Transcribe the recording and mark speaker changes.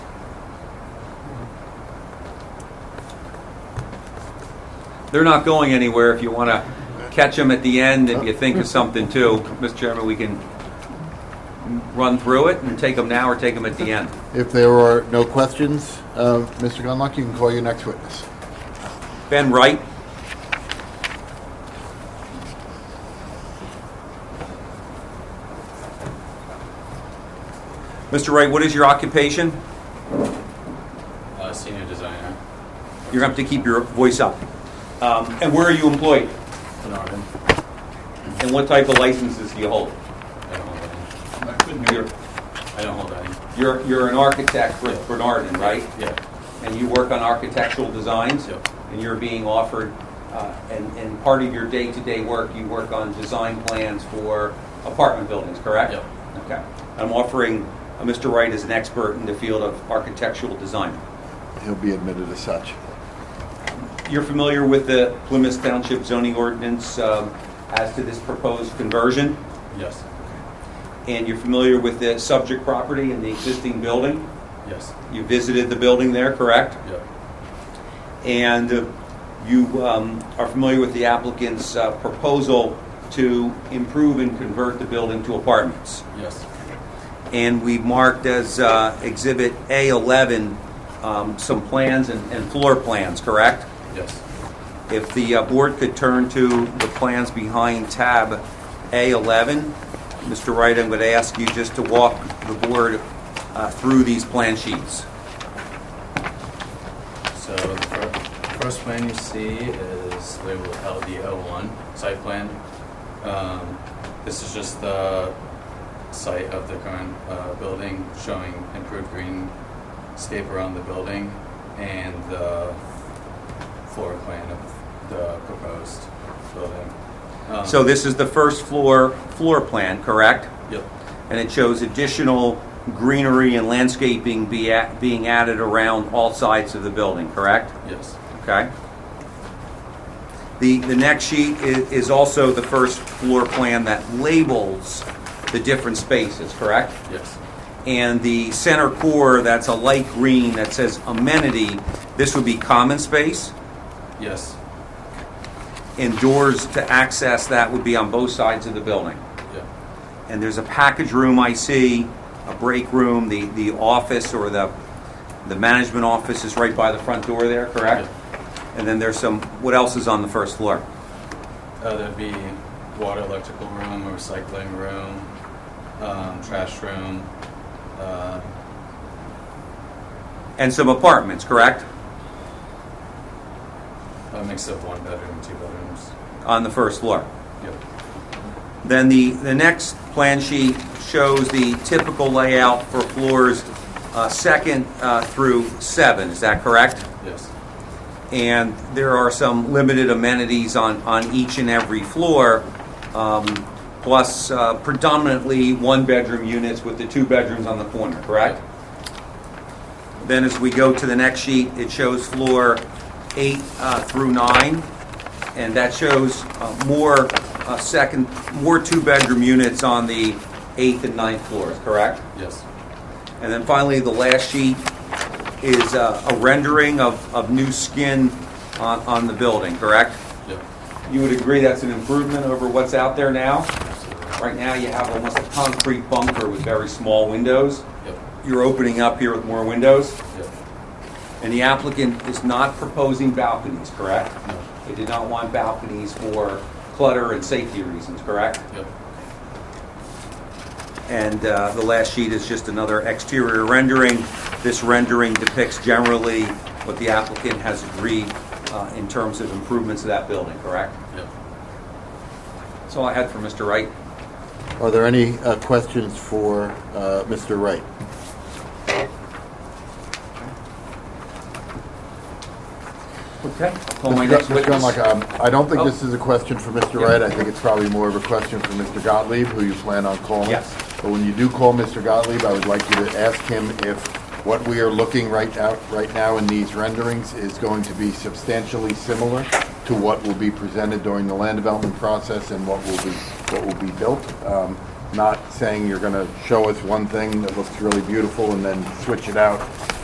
Speaker 1: they're not going anywhere if you want to catch them at the end if you think of something too. Mr. Chairman, we can run through it and take them now or take them at the end.
Speaker 2: If there are no questions, uh, Mr. Gunlock, you can call your next witness.
Speaker 1: Ben Wright, Mr. Wright, what is your occupation?
Speaker 3: Uh, senior designer,
Speaker 1: You're going to have to keep your voice up. Um, And where are you employed?
Speaker 3: Bernardin.
Speaker 1: And what type of licenses do you hold?
Speaker 3: I don't hold any.
Speaker 1: I couldn't hear.
Speaker 3: I don't hold any.
Speaker 1: You're, you're an architect for Bernardin, right?
Speaker 3: Yeah.
Speaker 1: And you work on architectural designs?
Speaker 3: Yep.
Speaker 1: And you're being offered, uh, and, and part of your day-to-day work, you work on design plans for apartment buildings, correct?
Speaker 3: Yep.
Speaker 1: Okay. I'm offering uh, Mr. Wright as an expert in the field of architectural design.
Speaker 2: He'll be admitted as such.
Speaker 1: You're familiar with the Plymouth Township zoning ordinance um, as to this proposed conversion?
Speaker 3: Yes.
Speaker 1: And you're familiar with the subject property and the existing building?
Speaker 3: Yes.
Speaker 1: You visited the building there, correct?
Speaker 3: Yep.
Speaker 1: And uh, you um, are familiar with the applicant's uh, proposal to improve and convert the building to apartments.
Speaker 3: Yes.
Speaker 1: And we marked as uh, Exhibit A11 um, some plans and and floor plans, correct?
Speaker 3: Yes.
Speaker 1: If the uh, board could turn to the plans behind tab A11. Mr. Wright, I'm going to ask you just to walk the board uh, through these plan sheets.
Speaker 3: So the fir- first plan you see is labeled LD01 site plan. Um, this is just the site of the current uh, building showing improved greenscape around the building and the floor plan of the proposed building. Um,
Speaker 1: So this is the first floor, floor plan, correct?
Speaker 3: Yep.
Speaker 1: And it shows additional greenery and landscaping be a- being added around all sides of the building, correct?
Speaker 3: Yes.
Speaker 1: Okay. The, the next sheet i- is also the first floor plan that labels the different spaces, correct?
Speaker 3: Yes.
Speaker 1: And the center core, that's a light green that says amenity, this would be common space,
Speaker 3: Yes.
Speaker 1: and doors to access that would be on both sides of the building.
Speaker 3: Yeah.
Speaker 1: And there's a package room I see, a break room, the, the office or the, the management office is right by the front door there, correct? And then there's some, what else is on the first floor?
Speaker 3: Uh, there'd be water, electrical room, a recycling room, um, trash room. Uh,
Speaker 1: And some apartments, correct?
Speaker 3: a mix of one bedroom, two bedrooms.
Speaker 1: On the first floor.
Speaker 3: Yep.
Speaker 1: Then the, the next plan sheet shows the typical layout for floors uh, second uh, through seven, is that correct?
Speaker 3: Yes.
Speaker 1: And there are some limited amenities on, on each and every floor, um, plus uh, predominantly one-bedroom units with the two bedrooms on the corner, correct? Then as we go to the next sheet, it shows floor eight uh, through nine, and that shows uh, more uh, second, more two-bedroom units on the eighth and ninth floors, correct?
Speaker 3: Yes.
Speaker 1: And then finally, the last sheet is uh, a rendering of, of new skin on, on the building, correct?
Speaker 3: Yep.
Speaker 1: You would agree that's an improvement over what's out there now?
Speaker 3: Absolutely.
Speaker 1: Right now, you have almost a concrete bunker with very small windows.
Speaker 3: Yep.
Speaker 1: You're opening up here with more windows,
Speaker 3: Yep.
Speaker 1: and the applicant is not proposing balconies, correct?
Speaker 3: No.
Speaker 1: They did not want balconies for clutter and safety reasons, correct?
Speaker 3: Yep.
Speaker 1: And uh, the last sheet is just another exterior rendering. This rendering depicts generally what the applicant has agreed uh, in terms of improvements to that building, correct?
Speaker 3: Yep.
Speaker 1: That's all I had for Mr. Wright.
Speaker 2: Are there any uh, questions for uh, Mr. Wright?
Speaker 1: Okay. Call Oh my
Speaker 2: Mr.
Speaker 1: next
Speaker 2: Gun- Mr.
Speaker 1: witness.
Speaker 2: Gunlock, um, I don't think
Speaker 1: Oh.
Speaker 2: this is a question for Mr.
Speaker 1: Yeah.
Speaker 2: Wright. I think it's probably more of a question for Mr. Gottlieb, who you plan on calling.
Speaker 1: Yes.
Speaker 2: But when you do call Mr. Gottlieb, I would like you to ask him if what we are looking right now, right now in these renderings is going to be substantially similar to what will be presented during the land development process and what will be, what will be built. Um, Not saying you're going to show us one thing that looks really beautiful and then switch it out